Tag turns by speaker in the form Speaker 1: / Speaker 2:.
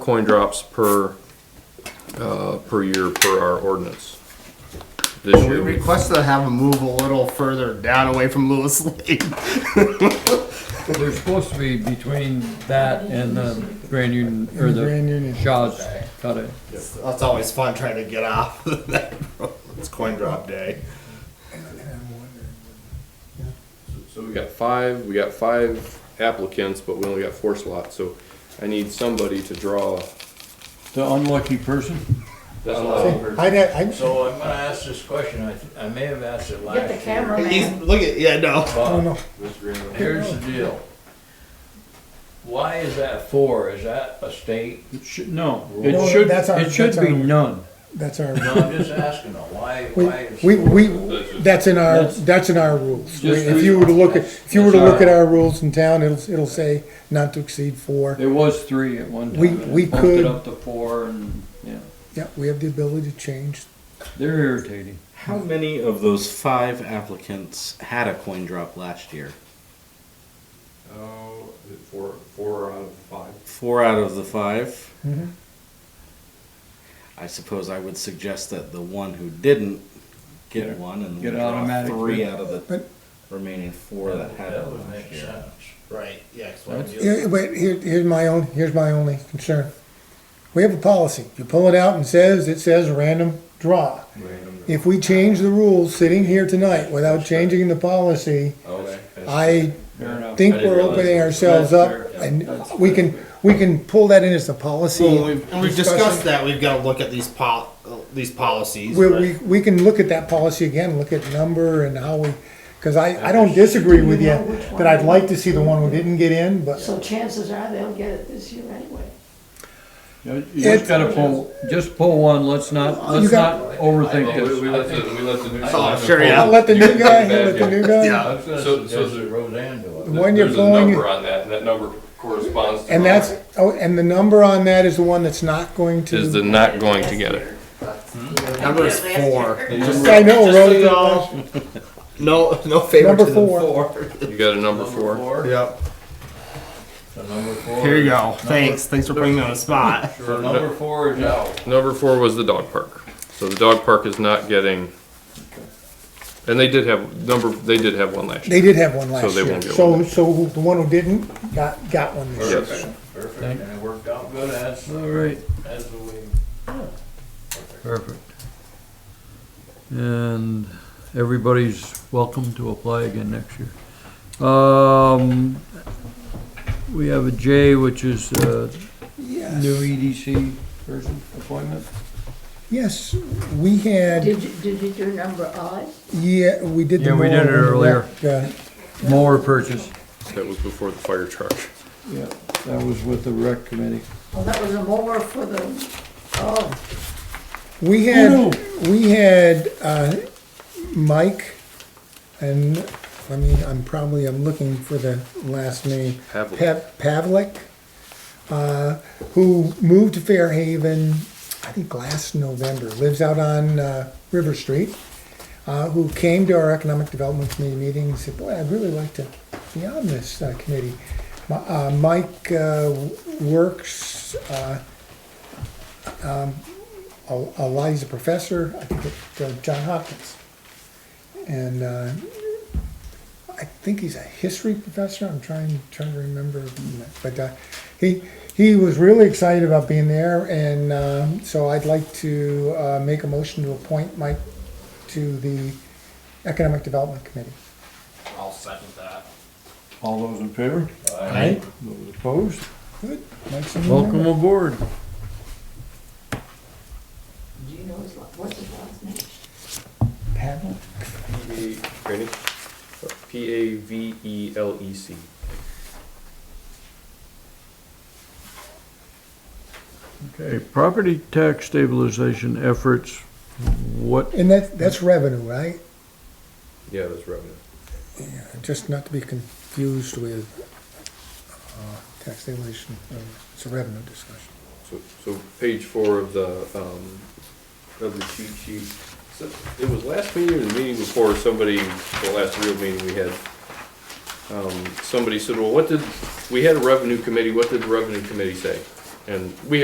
Speaker 1: coin drops per, uh, per year per our ordinance. This
Speaker 2: We
Speaker 1: year, we-
Speaker 2: requested to have them move a little further down away from Lewis Lake.
Speaker 3: They're supposed to be between that and the Grand Union, or
Speaker 4: Grand
Speaker 3: the
Speaker 4: Union.
Speaker 3: Shaw's cut it.
Speaker 2: That's always fun trying to get off that road. It's coin drop day.
Speaker 1: so we got five, we got five applicants, but we only got four slots, so I need somebody to draw.
Speaker 3: The unlucky person?
Speaker 1: That's
Speaker 4: I'd, I'd,
Speaker 5: So I'm gonna ask this question, I, th- I may have asked it last year.
Speaker 6: Get the cameraman.
Speaker 2: look at, yeah, no.
Speaker 4: oh no,
Speaker 5: But here's the deal. Why is that four? Is that a state?
Speaker 3: It should, no,
Speaker 4: No,
Speaker 3: it should,
Speaker 4: that's our-
Speaker 3: it should
Speaker 4: that's
Speaker 3: be
Speaker 4: our-
Speaker 3: none.
Speaker 4: that's our,
Speaker 5: No, I'm just asking though, why, why is?
Speaker 4: we,
Speaker 5: four?
Speaker 4: we, that's in our, that's in our rules.
Speaker 3: Just-
Speaker 4: If you were to look at, if you were to
Speaker 3: That's our-
Speaker 4: look at our rules in town, it'll, it'll say not to exceed four.
Speaker 3: There was three at one time.
Speaker 4: We-
Speaker 3: and
Speaker 4: we
Speaker 3: they bumped
Speaker 4: could-
Speaker 3: it up to four and, yeah,
Speaker 4: Yeah, we have the ability to change.
Speaker 3: they're irritating.
Speaker 7: How many of those five applicants had a coin drop last year?
Speaker 1: Oh, four, four out of five.
Speaker 7: Four out of the 5 I suppose I would suggest that the one who didn't get
Speaker 3: Get-
Speaker 7: one and
Speaker 3: get
Speaker 7: we draw
Speaker 3: automatic.
Speaker 7: three out of the
Speaker 4: But-
Speaker 7: remaining four that had
Speaker 5: That
Speaker 7: it
Speaker 5: would make
Speaker 7: last year.
Speaker 5: sense.
Speaker 2: Right, yeah. 'cause when you-
Speaker 4: Here, wait, here, here's my own, here's my only concern. We have a policy. You pull it out and says, it says random draw. If we change the rules sitting here tonight without changing the policy,
Speaker 7: Okay.
Speaker 4: I
Speaker 3: Fair enough.
Speaker 4: think
Speaker 7: I didn't
Speaker 4: we're
Speaker 7: realize
Speaker 4: opening
Speaker 7: that.
Speaker 4: ourselves up, and we can, we can pull that in as a policy.
Speaker 2: Well, we've, and we've discussed
Speaker 4: discussion.
Speaker 2: that. We've got to look at these pol, uh, these policies.
Speaker 4: We,
Speaker 2: but-
Speaker 4: we, we can look at that policy again, look at number and how we, cause I, I don't disagree with you, that I'd like to see the one who didn't get in, but
Speaker 6: So chances are they'll get it this year anyway.
Speaker 3: You just gotta pull, just pull one, let's not,
Speaker 4: You
Speaker 3: let's
Speaker 4: got-
Speaker 3: not overthink
Speaker 1: We, we
Speaker 3: this.
Speaker 1: let the, we let the new.
Speaker 2: Oh,
Speaker 1: slot
Speaker 2: sure,
Speaker 4: I'll
Speaker 2: yeah.
Speaker 4: let the new guy, let the new guy.
Speaker 5: I was gonna
Speaker 1: So- so
Speaker 5: suggest
Speaker 1: the-
Speaker 5: that Roseanne do it.
Speaker 4: The one you're
Speaker 1: There's a
Speaker 4: pulling,
Speaker 1: Number on that, and that number corresponds to.
Speaker 4: and
Speaker 1: mine.
Speaker 4: that's, oh, and the number on that is the one that's not going
Speaker 1: Is the
Speaker 4: to,
Speaker 1: not going to get it.
Speaker 2: Number is four.
Speaker 4: I know,
Speaker 2: Just so
Speaker 4: Rose. uh,
Speaker 2: you know, No, no favor
Speaker 4: Number
Speaker 2: to them
Speaker 4: four.
Speaker 2: four.
Speaker 1: You got a number four?
Speaker 2: Yep.
Speaker 5: So number four.
Speaker 2: Here you go. Thanks, thanks for bringing me on the spot.
Speaker 5: So number four is out.
Speaker 1: Number four was the dog park. So the dog park is not getting, and they did have, number, they did have one last year.
Speaker 4: they did have one last
Speaker 1: they
Speaker 4: year.
Speaker 1: won't get
Speaker 4: So,
Speaker 1: one.
Speaker 4: so who- the one who didn't, got, got one this year.
Speaker 1: Yes.
Speaker 5: Perfect, and it worked out good as,
Speaker 3: All right.
Speaker 5: as the way.
Speaker 3: Perfect. And everybody's welcome to apply again next year. Um, we have a J, which is uh, a new EDC person appointment.
Speaker 4: Yes, we had,
Speaker 6: Did you, did you do number odd?
Speaker 4: yeah, we did the.
Speaker 3: Yeah, we did it
Speaker 4: mower,
Speaker 3: earlier.
Speaker 4: Yeah.
Speaker 3: Mower purchase.
Speaker 1: That was before the fire truck.
Speaker 3: Yeah, that was with the rec committee.
Speaker 6: Well, that was a mower for the, oh,
Speaker 4: We had, we had, uh, Mike, and, I mean, I'm probably, I'm looking for the last name.
Speaker 1: Pavlik.
Speaker 4: Pav- Pavlik, uh, who moved to Fairhaven, I think last November, lives out on, uh, River Street, uh, who came to our Economic Development Committee meeting and said, boy, I'd really like to be on this, uh, committee. Mi- Uh, Mike, uh, works, uh, um, Al- Eliza Professor, I think at uh, John Hopkins. And uh, I think he's a history professor, I'm trying, trying to remember, but uh, he, he was really excited about being there, and um, so I'd like to uh, make a motion to appoint Mike to the Economic Development Committee.
Speaker 2: I'll second that.
Speaker 3: All those in favor?
Speaker 4: Right.
Speaker 3: Those opposed?
Speaker 4: Good. Mike's a new
Speaker 3: Welcome
Speaker 4: member.
Speaker 3: aboard.
Speaker 6: do you know his, la- what's his last name?
Speaker 4: Pavel.
Speaker 1: P A V E L E C.
Speaker 3: Okay, property tax stabilization efforts, what,
Speaker 4: And that, that's revenue, right?
Speaker 1: Yeah, that's revenue.
Speaker 4: Just not to be confused with uh, tax stabilization, uh, it's a revenue discussion.
Speaker 1: So, so page four of the, um, of the cheat sheet. So It was last meeting or the meeting before, somebody, the last real meeting we had, um, somebody said, well, what did, we had a revenue committee, what did the revenue committee say? And we